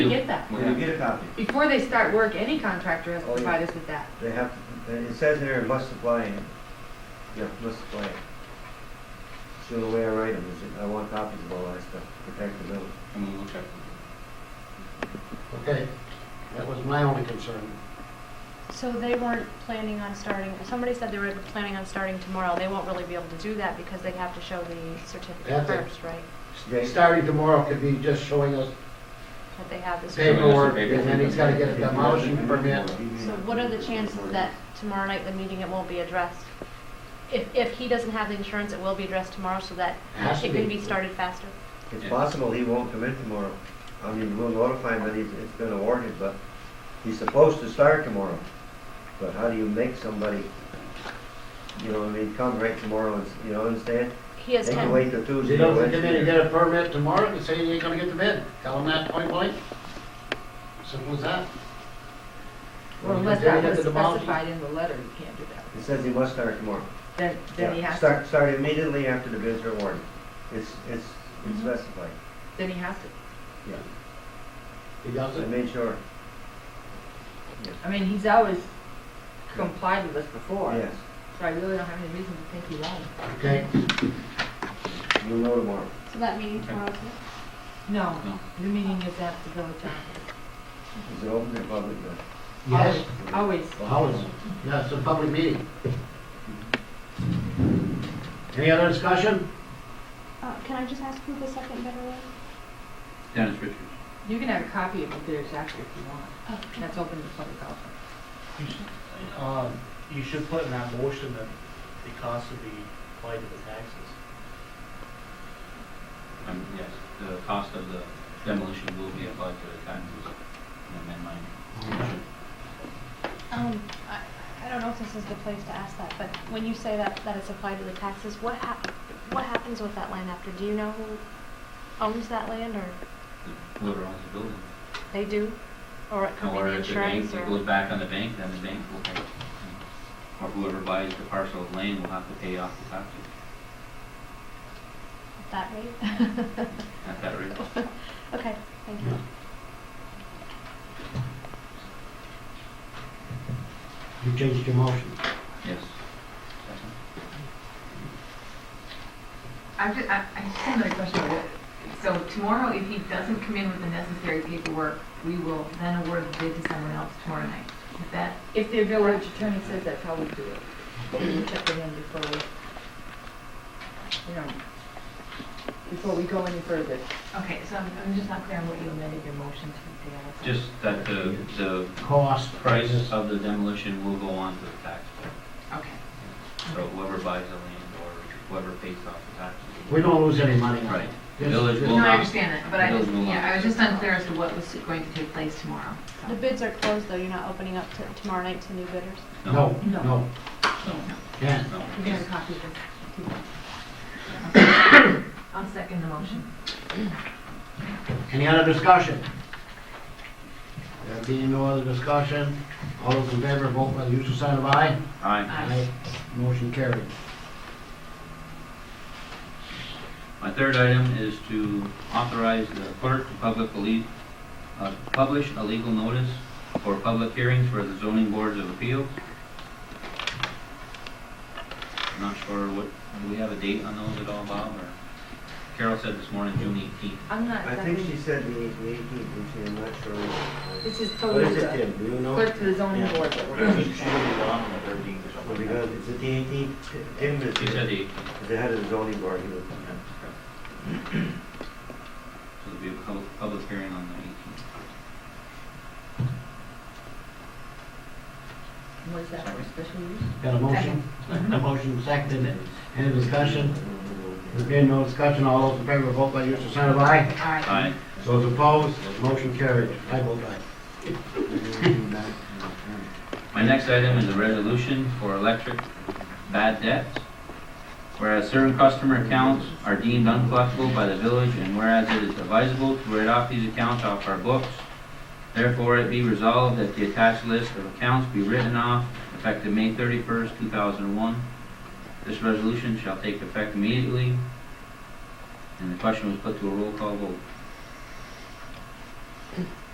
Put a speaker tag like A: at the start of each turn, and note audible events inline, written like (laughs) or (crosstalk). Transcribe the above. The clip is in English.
A: to get that.
B: When you get a copy,
A: Before they start work, any contractor has to provide us with that.
B: they have, to- it says in there, must supply, it. yeah, must supply. it. So the way I write them is, I want copies of all that stuff, to protect the village.
C: And we will check.
D: Okay, that was my only concern.
E: So they weren't planning on starting, somebody said they were planning on starting tomorrow. They won't really be able to do that because they have to show the certificate
D: Have they?
E: first, right?
B: They-
D: Starting tomorrow could be just showing us
E: That they have this.
C: Hey.
D: paperwork, and then he's gotta get a demolition permit.
E: So what are the chances that tomorrow night the meeting, it won't be addressed? If, if he doesn't have the insurance, it will be addressed tomorrow so that
D: Has to
E: it can
D: be.
E: be started faster?
B: It's possible he won't come in tomorrow. I mean, we'll notify him that he's, it's been awarded, but he's supposed to start tomorrow. But how do you make somebody, you know, what I mean, come right tomorrow and, s- you know, understand?
E: He has
B: They can
E: ten,
B: wait till Tuesday.
D: You don't think
B: Wednesday.
D: they're gonna get a permit tomorrow and say you ain't gonna get the bid? Tell them that point blank. Simple as that.
A: Well,
D: You
A: unless
D: dare
A: that
D: get
A: was
D: the demolition?
A: specified in the letter, you can't do that.
B: It says he must start tomorrow.
A: Then, then he
B: Yeah.
A: has, to.
B: Start, start immediately after the bids are awarded. It's, it's, it's
A: Mhm.
B: specified.
A: then he has to.
D: He
B: I
D: doesn't.
B: made sure,
A: I mean, he's always complied with us before.
B: yes.
A: So I really don't have any reason to think he won't.
D: Okay,
B: We'll know tomorrow.
E: so that meeting tomorrow.
A: No,
C: No.
A: the meeting is at the village office.
B: Is it open to the public? No.
D: yes,
A: Always.
D: always. Yeah, it's a public meeting. Any other discussion?
F: Uh, Can I just ask who the second bidder was?
C: Dennis Richards.
A: You can have a copy of the bidder's after if you want. That's open to the public also.
G: Um, you should put in that motion that the cost would be applied to the taxes.
C: Um, yes, the cost of the demolition will be applied to the taxes. And then my,
E: Um, I, I don't know if this is the place to ask that, but when you say that, that it's applied to the taxes, what hap, what happens with that land after? Do you know who owns that land or
C: whoever owns the building.
E: they do? Or it could be
C: Or
E: the
C: if the bank, it
E: insurance or?
C: goes back on the bank, then the bank will pay. Or whoever buys the parcel of land will have to pay off the taxes
E: That rate? (laughs)
C: at that rate.
E: Okay, thank you.
D: You changed your motion.
C: Yes.
H: I'm just, I, I just have another question. So tomorrow, if he doesn't come in with the necessary paperwork, we will then award the bid to someone else tomorrow night. Is that,
A: If the village attorney says that's how we do it, we check it in before we, you know, before we go any further.
H: okay, so I'm, I'm just not clear on what you amended your motion to deal with.
C: Just that the, the
D: Cost.
C: price of the demolition will go on to the tax bill.
H: Okay.
C: So whoever buys the land or whoever pays off the taxes.
D: We don't lose any money.
C: Right. The
D: Just-
C: village will
H: No, I
C: not.
H: understand that, but I
C: We'll
H: just,
C: move on.
H: yeah, I was just unclear as to what was going to take place tomorrow.
E: The
H: so.
E: bids are closed, though, you're not opening up to tomorrow night to new bidders?
D: No,
A: No.
D: no,
C: No,
D: yeah.
C: no.
A: You can have a copy of this.
H: I'll second the motion.
D: Any other discussion? There being no other discussion, all those in favor, vote by the usual sign of aye.
C: Aye.
H: Aye.
D: Motion carried.
C: My third item is to authorize the clerk to public believe, uh, publish a legal notice for public hearings for the zoning boards of appeals. I'm not sure what, do we have a date on those at all, Bob, or Carol said this morning, June eighteenth.
A: I'm not,
B: I think she said the eight- the eighteenth, didn't she? I'm not sure.
A: this is
B: What
A: totally
B: is it,
A: the
B: Tim? Do you know?
A: clerk to the zoning board that we're going to.
B: Well, Because it's at the eighteenth, Tim is
C: She said
B: the
C: the 18th.
B: is the head of the zoning board, he was,
C: So there'll be a public, public hearing on the eighteenth.
A: What is that, for special use?
D: Got a motion? (laughs) A motion seconded. Any discussion?
B: Mm-hmm.
D: There being no discussion, all those in favor, vote by the usual sign of aye.
H: All right.
C: Aye.
B: (laughs)
D: Those opposed, motion carried. I vote aye.
C: My next item is a resolution for electric bad debts. Whereas certain customer accounts are deemed uncollectible by the village, and whereas it is advisable to write off these accounts off our books, therefore it be resolved that the attached list of accounts be written off effective May thirty-first, two thousand and one. This resolution shall take effect immediately. And the question was put to a roll call vote.